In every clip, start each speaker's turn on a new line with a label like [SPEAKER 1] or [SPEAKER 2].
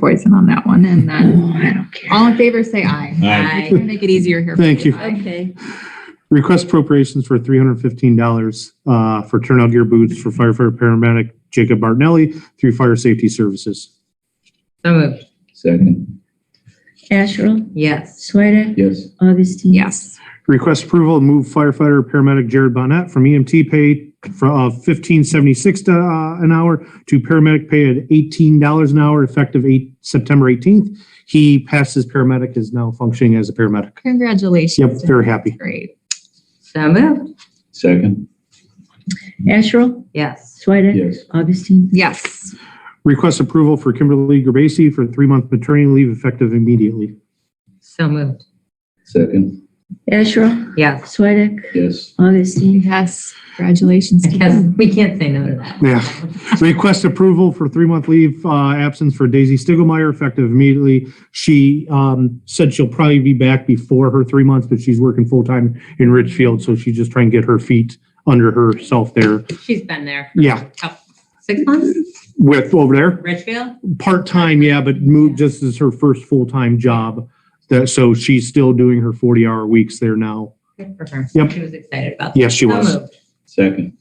[SPEAKER 1] poison on that one and then
[SPEAKER 2] Oh,
[SPEAKER 3] I don't care.
[SPEAKER 1] all in favor, say aye.
[SPEAKER 4] Aye.
[SPEAKER 1] It's gonna Make it easier here. for
[SPEAKER 2] Thank you.
[SPEAKER 1] Aye.
[SPEAKER 3] Okay,
[SPEAKER 2] Request appropriations for three hundred fifteen dollars, uh, for turnout gear boots for firefighter paramedic Jacob Martinelli through Fire Safety Services.
[SPEAKER 4] So moved.
[SPEAKER 5] Second,
[SPEAKER 3] Asherle,
[SPEAKER 4] Yes.
[SPEAKER 3] Swedek,
[SPEAKER 5] yes,
[SPEAKER 3] Augustine.
[SPEAKER 1] Yes,
[SPEAKER 2] Request approval to move firefighter paramedic Jared Bonnet from EMT pay from fifteen seventy-six uh, an hour to paramedic pay at eighteen dollars an hour effective eight, September eighteenth. He passed his paramedic, is now functioning as a paramedic.
[SPEAKER 1] congratulations.
[SPEAKER 2] Yep, very happy.
[SPEAKER 1] Great.
[SPEAKER 4] So moved.
[SPEAKER 5] second,
[SPEAKER 3] Asherle,
[SPEAKER 4] Yes.
[SPEAKER 3] Swedek.
[SPEAKER 5] yes,
[SPEAKER 3] Augustine.
[SPEAKER 1] Yes,
[SPEAKER 2] Request approval for Kimberly Gerbasi for three-month maternity leave effective immediately.
[SPEAKER 4] So moved.
[SPEAKER 5] second,
[SPEAKER 3] Asherle,
[SPEAKER 4] Yes.
[SPEAKER 3] Swedek,
[SPEAKER 5] yes,
[SPEAKER 3] Augustine.
[SPEAKER 1] yes, congratulations. to
[SPEAKER 4] Yes,
[SPEAKER 1] them.
[SPEAKER 4] we can't say no to that.
[SPEAKER 2] Yeah. Request approval for three-month leave uh, absence for Daisy Stiglmeyer effective immediately. She um, said she'll probably be back before her three months, but she's working full-time in Richfield, so she's just trying to get her feet under herself there.
[SPEAKER 4] She's been there.
[SPEAKER 2] Yeah,
[SPEAKER 4] Six months?
[SPEAKER 2] with over there,
[SPEAKER 4] Richfield?
[SPEAKER 2] part-time, yeah, but moved just as her first full-time job. That, so she's still doing her 40-hour weeks there now.
[SPEAKER 4] Good for her.
[SPEAKER 2] Yep.
[SPEAKER 4] She was excited about that.
[SPEAKER 2] Yes, she
[SPEAKER 4] So
[SPEAKER 2] was.
[SPEAKER 4] moved.
[SPEAKER 5] second,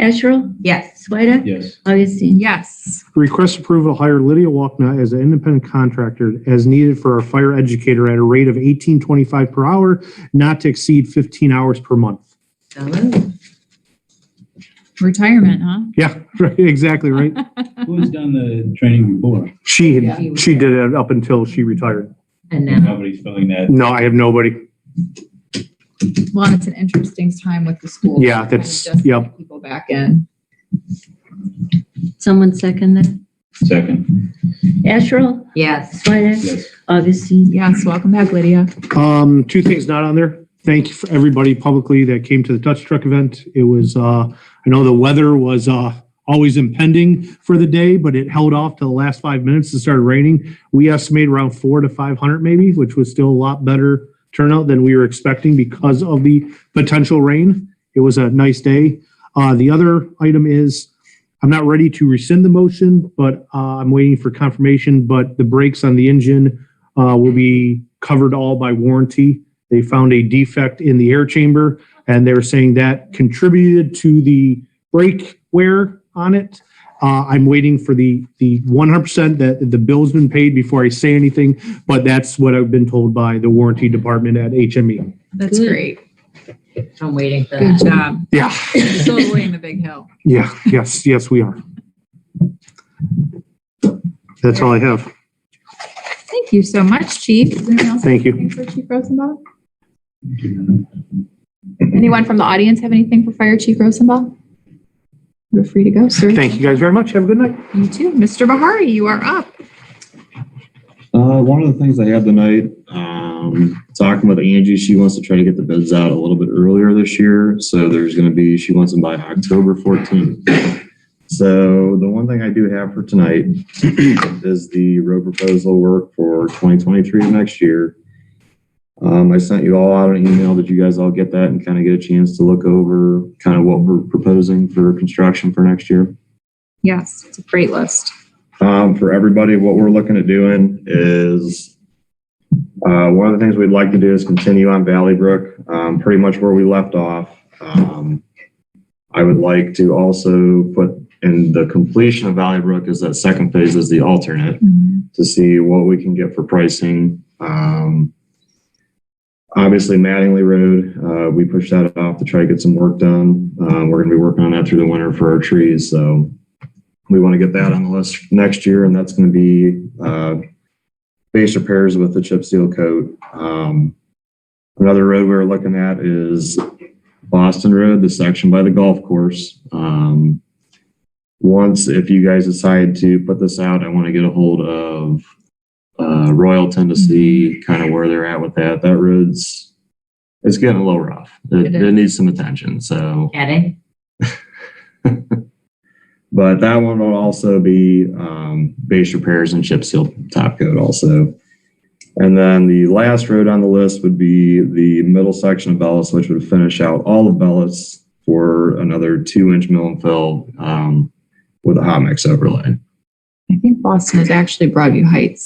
[SPEAKER 3] Asherle,
[SPEAKER 4] Yes.
[SPEAKER 3] Swedek,
[SPEAKER 5] yes,
[SPEAKER 3] Augustine.
[SPEAKER 1] Yes,
[SPEAKER 2] Request approval to hire Lydia Walkna as an independent contractor as needed for our fire educator at a rate of eighteen twenty-five per hour, not to exceed fifteen hours per month.
[SPEAKER 4] So moved.
[SPEAKER 1] retirement, huh?
[SPEAKER 2] Yeah, right, exactly, right?
[SPEAKER 5] who has done the training before?
[SPEAKER 2] She, had- she did it up until she retired.
[SPEAKER 4] And now,
[SPEAKER 5] Nobody's filling that,
[SPEAKER 2] No, I have nobody.
[SPEAKER 1] Well, it's an interesting time with the school.
[SPEAKER 2] Yeah,
[SPEAKER 1] Kind of
[SPEAKER 2] that's-
[SPEAKER 1] just
[SPEAKER 2] yep.
[SPEAKER 1] get People back in.
[SPEAKER 3] Someone second that.
[SPEAKER 5] second,
[SPEAKER 3] Asherle,
[SPEAKER 4] yes.
[SPEAKER 3] Swedek,
[SPEAKER 5] yes,
[SPEAKER 3] Augustine.
[SPEAKER 1] Yes, welcome back, Lydia.
[SPEAKER 2] Um, two things not on there. Thank you for everybody publicly that came to the Dutch Truck event. It was, uh, I know the weather was, uh, always impending for the day, but it held off to the last five minutes. It started raining. We estimate around four to 500 maybe, which was still a lot better turnout than we were expecting because of the potential rain. It was a nice day. Uh, the other item is, I'm not ready to rescind the motion, but, uh, I'm waiting for confirmation, but the brakes on the engine uh, will be covered all by warranty. They found a defect in the air chamber and they were saying that contributed to the brake wear on it. Uh, I'm waiting for the, the 100% that the bill's been paid before I say anything, but that's what I've been told by the warranty department at E. HME.
[SPEAKER 1] That's
[SPEAKER 3] Good.
[SPEAKER 1] great.
[SPEAKER 4] I'm waiting for
[SPEAKER 1] Good
[SPEAKER 4] that.
[SPEAKER 1] job.
[SPEAKER 2] Yeah,
[SPEAKER 1] Still avoiding the big hill.
[SPEAKER 2] yeah, yes, yes, we are. That's all I have.
[SPEAKER 1] Thank you so much, Chief. Is anyone else
[SPEAKER 2] Thank you.
[SPEAKER 1] Anything for Chief Rosenbaum? Anyone from the audience have anything for Fire Chief Rosenbaum? You're free to go, sir.
[SPEAKER 2] Thank you guys very much. Have a good night.
[SPEAKER 1] You too. Mr. Bahari, you are up.
[SPEAKER 6] Uh, one of the things I had tonight, um, talking with Angie, she wants to try to get the bids out a little bit earlier this year. So there's gonna be, she wants them by October fourteenth. So the one thing I do have for tonight is the road proposal work for twenty twenty-three next year. Um, I sent you all out an email. Did you guys all get that and kind of get a chance to look over kind of what we're proposing for construction for next year?
[SPEAKER 1] Yes, it's a great list.
[SPEAKER 6] Um, for everybody, what we're looking at doing is, uh, one of the things we'd like to do is continue on Valley Brook, um, pretty much where we left off. Um, I would like to also put, in the completion of Valley Brook is that second phase is the alternate
[SPEAKER 1] Mm-hmm.
[SPEAKER 6] to see what we can get for pricing. Um, obviously Mattingly Road, uh, we pushed that off to try to get some work done. Uh, we're gonna be working on that through the winter for our trees, so we want to get that on the list next year, and that's gonna be, uh, base repairs with the chip seal coat. Um, another road we're looking at is Boston Road, the section by the golf course. Um, once, if you guys decide to put this out, I want to get a hold of uh, Royal Tennessee, kind of where they're at with that. That road's, it's getting a little rough. It,
[SPEAKER 1] It is.
[SPEAKER 6] it needs some attention, so.
[SPEAKER 4] Adding?
[SPEAKER 6] But that one will also be um, base repairs and chip seal top coat also. And then the last road on the list would be the middle section of Bellis, which would finish out all of Bellis for another two inch mill and fill um, with a hot mix overlay.
[SPEAKER 1] I think Boston has actually Broadview Heights.